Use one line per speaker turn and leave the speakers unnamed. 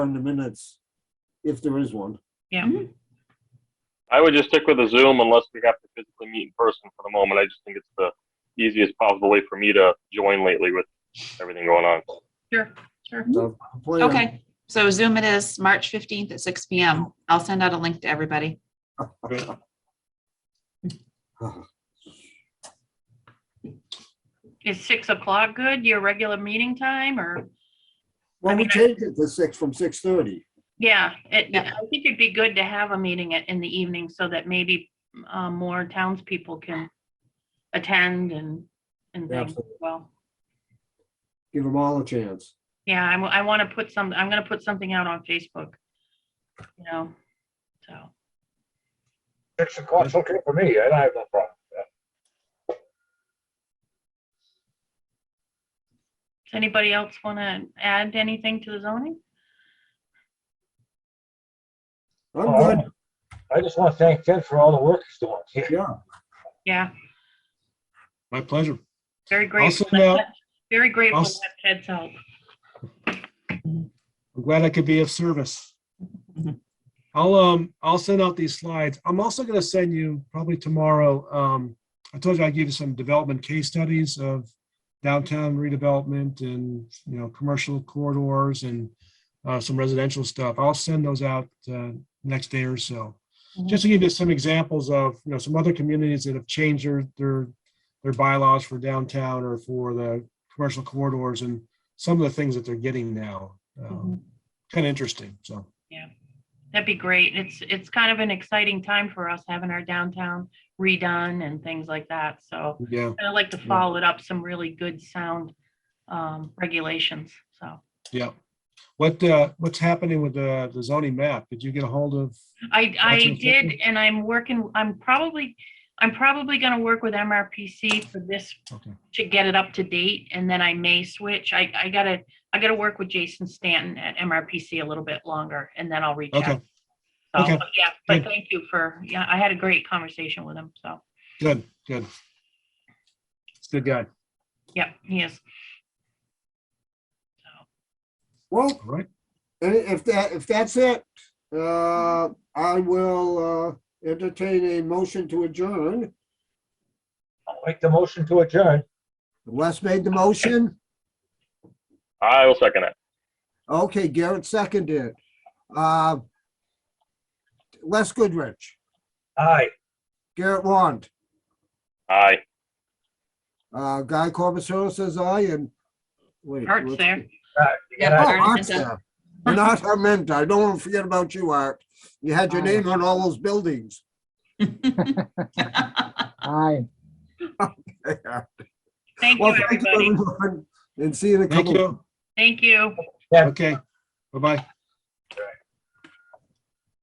on the minutes, if there is one.
Yeah.
I would just stick with the Zoom unless we have to physically meet in person for the moment. I just think it's the easiest possible way for me to join lately with everything going on.
Sure, sure.
So, plan.
Okay, so Zoom it is, March 15th at six PM. I'll send out a link to everybody.
Is six o'clock good, your regular meeting time, or,
Well, we
mean, I-
changed it to six from six thirty.
yeah, it,
Yeah.
I think it'd be good to have a meeting at- in the evening so that maybe uh, more townspeople can attend and, and things,
Absolutely.
well,
Give them all a chance.
yeah, I, wa- I want to put some, I'm gonna put something out on Facebook, you know, so,
Six o'clock's okay for me. I don't have no problem.
does anybody else want to add anything to the zoning?
I'm good.
Oh, I just want to thank Ted for all the work he's doing. He-
Yeah,
Yeah,
My pleasure.
very grateful,
send out-
very grateful
I'll
to
s-
have Ted's help,
I'm glad I could be of service. I'll, um, I'll send out these slides. I'm also gonna send you probably tomorrow, um, I told you I gave you some development case studies of downtown redevelopment and, you know, commercial corridors and uh, some residential stuff. I'll send those out, uh, next day or so. Just to give you some examples of, you know, some other communities that have changed their, their, their bylaws for downtown or for the commercial corridors and some of the things that they're getting now. Um, kind of interesting, so.
that'd be great, it's, it's kind of an exciting time for us, having our downtown redone and things like that, so.
Yeah,
I'd like to follow it up, some really good sound um, regulations, so.
yeah. What, uh, what's happening with the the zoning map? Did you get a hold of?
I, I
Gotcha.
did, and I'm working, I'm probably, I'm probably gonna work with MRPC for this
Okay,
to get it up to date, and then I may switch. I, I gotta, I gotta work with Jason Stanton at MRPC a little bit longer, and then I'll reach
Okay.
out. So,
Okay.
but yeah, but
Good.
thank you for, yeah, I had a great conversation with him, so,
good, good. It's a good guy,
yeah, he is.
well,
all right?
and if that, if that's it, uh, I will, uh, entertain a motion to adjourn.
I'll make the motion to adjourn.
Wes made the motion.
I will second it.
Okay, Garrett seconded. it. Uh, Les Goodrich,
Aye.
Garrett Wand,
Aye.
uh, Guy Corbett says aye and. wait,
Art's
let's-
there.
Yeah,
Oh,
Art
Art's
Minta.
there. And Art Armenta, I don't want to forget about you, Art. You had your
Aye.
name on all those buildings.
Aye.
Well, thank
Thank you,
you,
everybody.
everyone, And see you in a
Thank
couple.
you.
Thank you.
Okay, bye-bye.